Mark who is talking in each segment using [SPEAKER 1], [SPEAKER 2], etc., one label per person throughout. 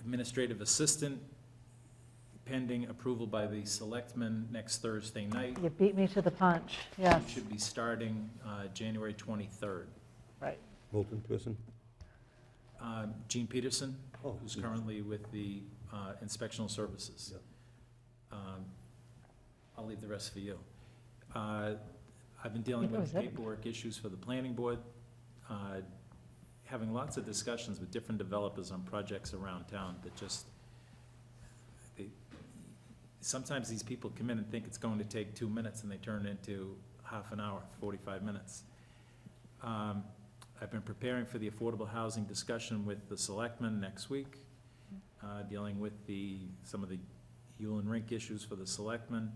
[SPEAKER 1] administrative assistant, pending approval by the selectmen next Thursday night.
[SPEAKER 2] You beat me to the punch, yes,
[SPEAKER 1] It Should be starting uh, January 23rd.
[SPEAKER 2] right.
[SPEAKER 3] Milton person?
[SPEAKER 1] Uh, Gene Peterson,
[SPEAKER 3] Oh,
[SPEAKER 1] who's
[SPEAKER 3] yeah.
[SPEAKER 1] currently with the uh, inspectional services. Um, I'll leave the rest for you. Uh, I've been dealing
[SPEAKER 2] That
[SPEAKER 1] with
[SPEAKER 2] was
[SPEAKER 1] the
[SPEAKER 2] it.
[SPEAKER 1] paperwork issues for the planning board, uh, having lots of discussions with different developers on projects around town that just, they, sometimes these people come in and think it's going to take two minutes, and they turn it into half an hour, forty-five minutes. Um, I've been preparing for the affordable housing discussion with the selectmen next week, uh, dealing with the, some of the Yule and Rink issues for the selectmen,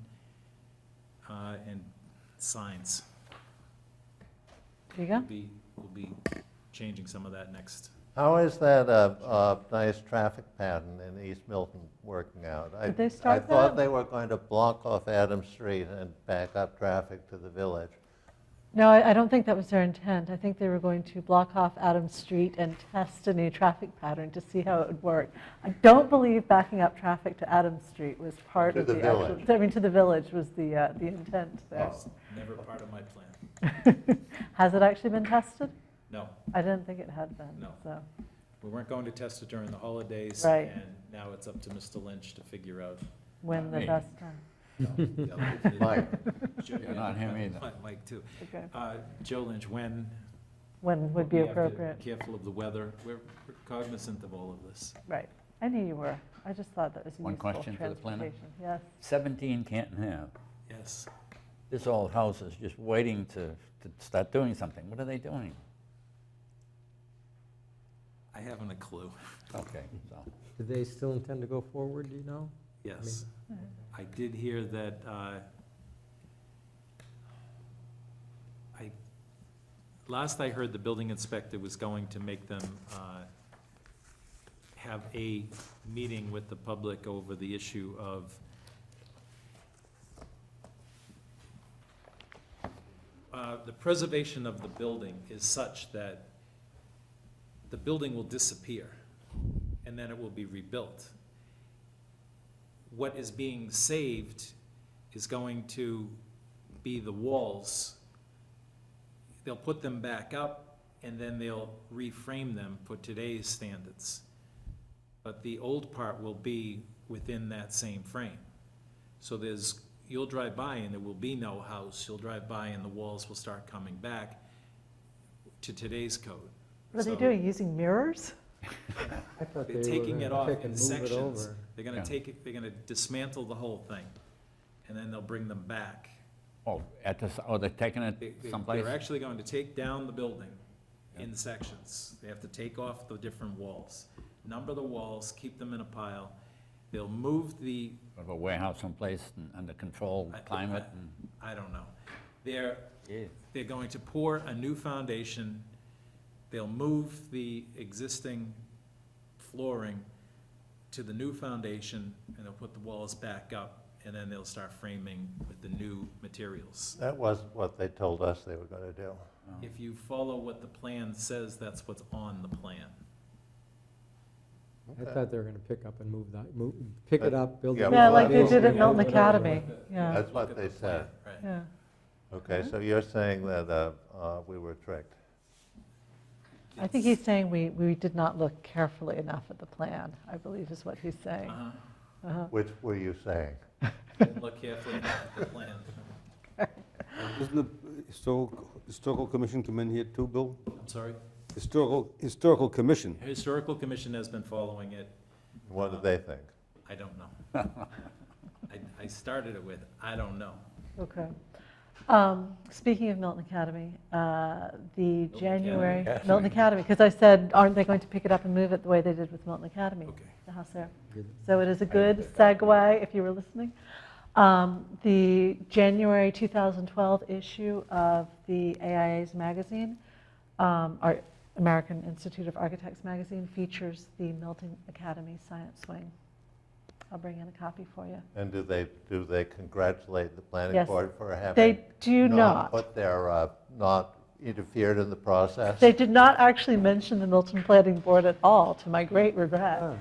[SPEAKER 1] uh, and signs.
[SPEAKER 2] There you
[SPEAKER 1] We'll
[SPEAKER 2] go.
[SPEAKER 1] be, we'll be changing some of that next.
[SPEAKER 4] How is that uh, uh, nice traffic pattern in East Milton working out? I-
[SPEAKER 2] Did they start
[SPEAKER 4] I thought
[SPEAKER 2] that?
[SPEAKER 4] they were going to block off Adams Street and back up traffic to the village.
[SPEAKER 2] No, I I don't think that was their intent. I think they were going to block off Adams Street and test a new traffic pattern to see how it would work. I don't believe backing up traffic to Adams Street was part
[SPEAKER 4] To
[SPEAKER 2] of
[SPEAKER 4] the
[SPEAKER 2] the actual.
[SPEAKER 4] village.
[SPEAKER 2] I mean, to the village was the, uh, the intent there.
[SPEAKER 1] It's Never part of my plan.
[SPEAKER 5] Oh.
[SPEAKER 2] Has it actually been tested?
[SPEAKER 1] No,
[SPEAKER 2] I didn't think it had been.
[SPEAKER 1] No.
[SPEAKER 2] So,
[SPEAKER 1] we weren't going to test it during the holidays.
[SPEAKER 2] Right.
[SPEAKER 1] And now it's up to Mr. Lynch to figure out.
[SPEAKER 2] when the
[SPEAKER 1] Me.
[SPEAKER 2] best time.
[SPEAKER 1] no, the other- the-
[SPEAKER 4] Mike.
[SPEAKER 1] Joe-
[SPEAKER 5] Yeah, not him either.
[SPEAKER 1] Mike, too.
[SPEAKER 2] Okay.
[SPEAKER 1] Uh, Joe Lynch, when?
[SPEAKER 2] When would be
[SPEAKER 1] we have to
[SPEAKER 2] appropriate.
[SPEAKER 1] Careful of the weather. We're we're cognizant of all of this.
[SPEAKER 2] Right. I knew you were. I just thought that was a
[SPEAKER 5] One
[SPEAKER 2] useful
[SPEAKER 5] question for the planner?
[SPEAKER 2] transportation. Yes.
[SPEAKER 5] 17 Canton Ave,
[SPEAKER 1] Yes.
[SPEAKER 5] this old house is just waiting to, to start doing something. What are they doing?
[SPEAKER 1] I haven't a clue.
[SPEAKER 5] Okay, so,
[SPEAKER 3] Do they still intend to go forward, do you know?
[SPEAKER 1] Yes. I did hear that, uh, I, last I heard, the building inspector was going to make them uh, have a meeting with the public over the issue of Uh, the preservation of the building is such that the building will disappear, and then it will be rebuilt what is being saved is going to be the walls. They'll put them back up, and then they'll reframe them for today's standards. But the old part will be within that same frame. So there's, you'll drive by and there will be no house, you'll drive by and the walls will start coming back to today's code.
[SPEAKER 2] What are they
[SPEAKER 1] So-
[SPEAKER 2] doing? Using mirrors?
[SPEAKER 3] I thought they
[SPEAKER 1] They're
[SPEAKER 3] were
[SPEAKER 1] taking it off
[SPEAKER 3] gonna pick
[SPEAKER 1] in
[SPEAKER 3] and move it
[SPEAKER 1] sections.
[SPEAKER 3] over.
[SPEAKER 1] They're gonna
[SPEAKER 5] Yeah.
[SPEAKER 1] take it, they're gonna dismantle the whole thing, and then they'll bring them back.
[SPEAKER 5] oh, at this, oh, they're taking
[SPEAKER 1] They,
[SPEAKER 5] it
[SPEAKER 1] they-
[SPEAKER 5] someplace?
[SPEAKER 1] they're actually going to take down the building in sections. They have to take off the different walls, number the walls, keep them in a pile. They'll move the,
[SPEAKER 5] Of a warehouse someplace and under controlled
[SPEAKER 1] I-
[SPEAKER 5] climate and,
[SPEAKER 1] I don't know. They're,
[SPEAKER 5] yeah,
[SPEAKER 1] they're going to pour a new foundation. They'll move the existing flooring to the new foundation, and they'll put the walls back up, and then they'll start framing with the new materials.
[SPEAKER 4] That wasn't what they told us they were going to do.
[SPEAKER 1] If you follow what the plan says, that's what's on the plan.
[SPEAKER 3] I thought they were gonna pick up and move that, move, pick it up, build it.
[SPEAKER 4] Yeah,
[SPEAKER 3] up,
[SPEAKER 2] Yeah,
[SPEAKER 4] well,
[SPEAKER 2] like
[SPEAKER 4] that
[SPEAKER 2] they
[SPEAKER 4] is-
[SPEAKER 2] did at
[SPEAKER 4] yeah,
[SPEAKER 2] Milton
[SPEAKER 3] build it up.
[SPEAKER 2] Academy, yeah,
[SPEAKER 4] That's what
[SPEAKER 1] Look at the
[SPEAKER 4] they
[SPEAKER 1] plan,
[SPEAKER 4] said.
[SPEAKER 1] Right.
[SPEAKER 2] yeah.
[SPEAKER 4] Okay, so you're saying that uh, uh, we were tricked.
[SPEAKER 2] I think he's saying we, we did not look carefully enough at the plan, I believe is what he's saying.
[SPEAKER 1] Uh-huh.
[SPEAKER 4] Which were you saying?
[SPEAKER 1] Didn't Look carefully at the plan.
[SPEAKER 6] Doesn't the historical, historical commission come in here too, Bill?
[SPEAKER 1] I'm sorry.
[SPEAKER 6] Historical, historical commission.
[SPEAKER 1] Historical Commission has been following it.
[SPEAKER 4] What do they think?
[SPEAKER 1] I don't know. I, I started it with, I don't know.
[SPEAKER 2] Okay. Um, Speaking of Milton Academy, uh, the January,
[SPEAKER 5] Academy.
[SPEAKER 2] Milton Academy, because I said, aren't they going to pick it up and move it the way they did with Milton Academy?
[SPEAKER 1] Okay.
[SPEAKER 2] The house there.
[SPEAKER 3] Good.
[SPEAKER 2] So it is a good segue, if you were listening. Um, The January 2012 issue of the AIA's magazine, um, our American Institute of Architects magazine, features the Milton Academy Science Wing. I'll bring in a copy for you.
[SPEAKER 4] And do they, do they congratulate the planning
[SPEAKER 2] Yes.
[SPEAKER 4] board for having?
[SPEAKER 2] They do not.
[SPEAKER 4] Put their, uh, not interfered in the process?
[SPEAKER 2] They did not actually mention the Milton Planning Board at all, to my great regret.
[SPEAKER 3] Oh.